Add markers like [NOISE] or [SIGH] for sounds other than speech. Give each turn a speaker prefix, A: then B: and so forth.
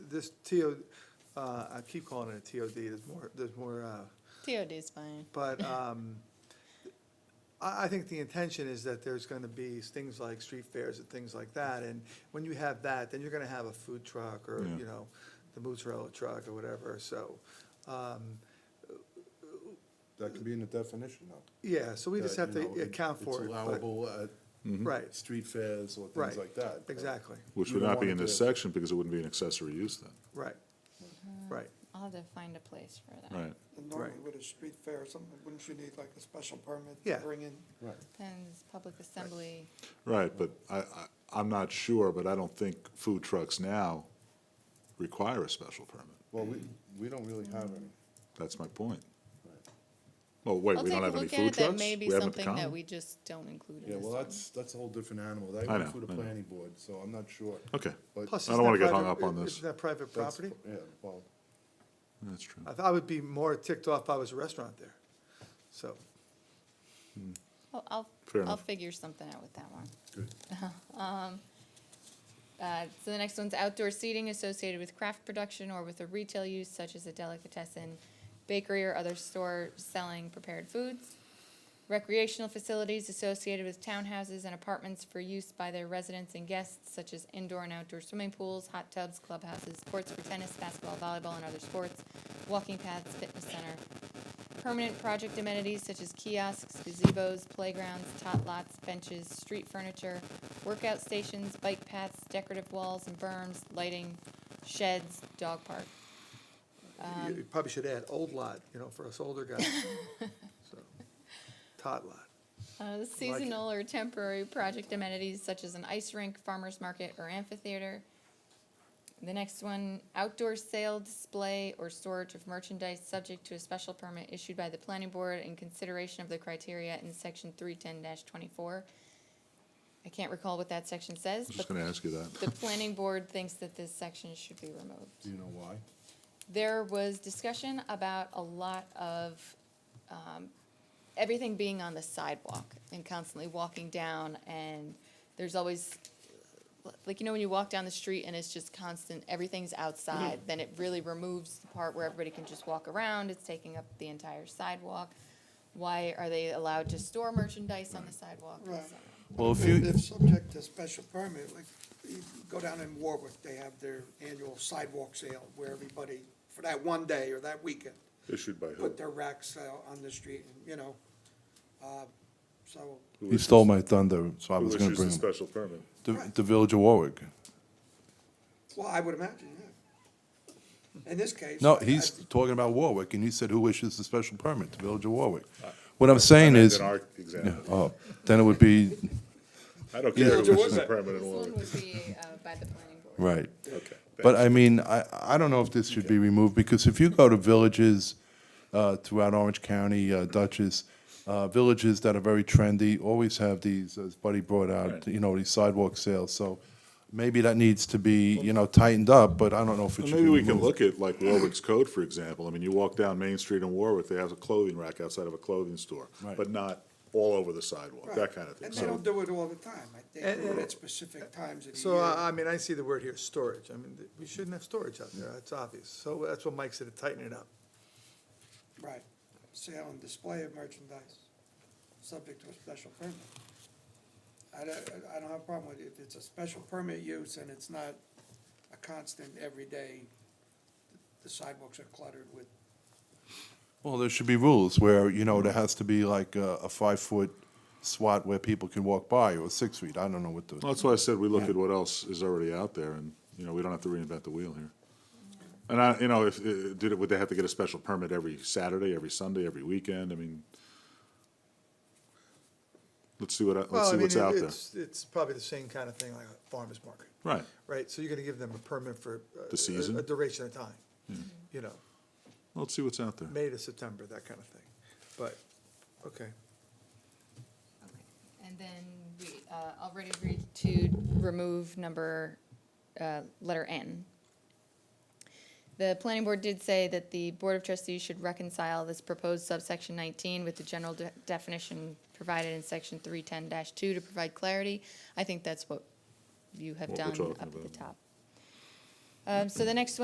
A: this TO, uh, I keep calling it a TOD, there's more, there's more, uh,
B: TOD is fine.
A: but, um, I, I think the intention is that there's gonna be things like street fairs and things like that, and when you have that, then you're gonna have a food truck or,
C: Yeah.
A: you know, the mozzarella truck or whatever, so, um,
D: That could be in the definition though.
A: yeah, so we just
D: That,
A: have
D: you know,
A: to account
D: it's
A: for it. but- Mm-hmm.
D: Allowable at
A: Right,
D: street fairs or
A: right.
D: things like that. but
A: Exactly,
C: Which
D: you
C: would
D: don't
C: not be
D: want
C: in
D: it
C: this
D: to-
C: section because it wouldn't be an accessory use then.
A: right, right,
B: I'll have to find a place for that.
C: Right.
E: And
A: Right.
E: Normally with a street fair or something, wouldn't you need like a special permit to
A: Yeah.
E: bring in?
D: Right.
B: Depends, public assembly,
C: Right, but I, I, I'm not sure, but I don't think food trucks now require a special permit.
D: Well, we, we don't really have any.
C: That's my point.
D: Right.
C: Well, wait,
B: I'll
C: we
B: take
C: don't
B: a
C: have any
B: look at
C: food
B: it, that
C: trucks?
B: may be
C: We haven't
B: something that
C: come?
B: we just don't include in
D: Yeah,
B: this
D: well,
B: one.
D: that's, that's a whole different animal. That
C: I
D: went
C: know,
D: through the
C: I know.
D: planning board, so I'm not sure.
C: Okay,
D: But
A: Plus,
C: I
A: isn't
C: don't wanna
A: that
C: get hung
A: private-
C: up on
A: is-
C: this.
A: Isn't that private
D: that's-
A: property?
D: Yeah, well,
C: that's true.
A: I, th- I would be more ticked off if I was a restaurant there. So,
B: Well, I'll,
C: Fair
B: I'll
C: enough.
B: figure something out with that one. [LAUGHS] Um,
D: good.
B: Uh, So the next one's outdoor seating associated with craft production or with a retail use such as a delicatessen, bakery or other store selling prepared foods. Recreational facilities associated with townhouses and apartments for use by their residents and guests such as indoor and outdoor swimming pools, hot tubs, clubhouses, courts for tennis, basketball, volleyball, and other sports, walking paths, fitness center. Permanent project amenities such as kiosks, gazebos, playgrounds, tot lots, benches, street furniture, workout stations, bike paths, decorative walls and berms, lighting, sheds, dog park.
A: you- you probably should add old lot, you know, for us older [LAUGHS] guys. So, Tot lot.
B: Uh, the seasonal or temporary project amenities such as an ice rink, farmer's market, or amphitheater. The next one, outdoor sale, display, or storage of merchandise subject to a special permit issued by the planning board in consideration of the criteria in section three ten twenty-four. I can't recall what that section
C: I
B: says,
C: was just
B: but
C: gonna ask you that.
B: the planning board thinks that this section should be
C: [LAUGHS]
B: removed.
D: Do you know why?
B: There was discussion about a lot of, um, everything being on the sidewalk and constantly walking down and there's always, like, you know, when you walk down the street and it's just constant, everything's outside, then it really removes the part where everybody can just walk around, it's taking up the entire sidewalk. Why are they allowed to store merchandise on the sidewalk?
E: Right.
F: Well, if
E: They're
F: you,
E: subject to special permit, like, you go down in Warwick, they have their annual sidewalk sale where everybody, for that one day or that weekend,
C: Issued by
E: put their racks out on the street and, you know. uh, So,
D: You stole my thunder, so I was gonna bring him.
C: special permit?
F: the, the Village of Warwick.
E: well, I would imagine, yeah. In this case.
F: No,
E: I- I
F: he's
E: think-
F: talking about Warwick, and he said who issues the special permit, the Village of Warwick. What I'm saying is,
C: In our
F: Yeah,
C: example,
F: oh, then it would be,
C: I don't
F: Yeah.
C: care if
F: There
C: it's a permit
B: This
C: in
B: one
C: Warwick.
B: would be, uh, by the planning board.
F: right.
C: Okay.
F: But I mean, I, I don't know if this should be removed, because if you go to villages uh, throughout Orange County, uh, Dutchess, uh, villages that are very trendy, always have these, as Buddy brought out,
C: Right.
F: you know, these sidewalk sales, so maybe that needs to be, you know, tightened up, but I don't know if it
C: Well,
F: should be
C: Maybe we
F: removed.
C: can look at like Warwick's code, for example. I mean, you walk down Main Street in Warwick, they have a clothing rack outside of a clothing store,
F: Right.
C: but not all over the sidewalk, that
E: right.
C: kind of thing.
E: And they
C: So
E: don't do it all the time. I think
A: And-
E: they do it at specific times of the year.
A: So, I, I mean, I see the word here, storage. I mean, th- we shouldn't have storage out there, that's obvious. So that's what Mike said, to tighten it up.
E: Right, sale and display of merchandise, subject to a special permit. I don't, I don't have a problem with it, if it's a special permit use and it's not a constant every day, the sidewalks are cluttered with,
F: Well, there should be rules where, you know, there has to be like a, a five-foot swat where people can walk by, or six feet, I don't know what
C: Well,
F: the,
C: that's why I said we look at what else is already out there and, you know, we don't have to reinvent the wheel here. And I, you know, if, uh, did it, would they have to get a special permit every Saturday, every Sunday, every weekend? I mean, let's see what, I- let's
A: Well, I
C: see
A: mean,
C: what's out there.
A: it's, it's probably the same kind of thing like a farmer's market,
C: Right.
A: right? So you're gonna give them a permit for. uh,
C: The season? Hmm.
A: a- A duration of time, you know,
C: Let's see what's out there.
A: May to September, that kind of thing. But, okay.
B: Okay. And then we uh, already agreed to remove number, uh, letter N. The planning board did say that the Board of Trustees should reconcile this proposed subsection 19 with the general de- definition provided in section 310-2 to provide clarity. I think that's what you have
C: What we're
B: done
C: talking
B: up at the
C: about.
B: top. Um, So the next one.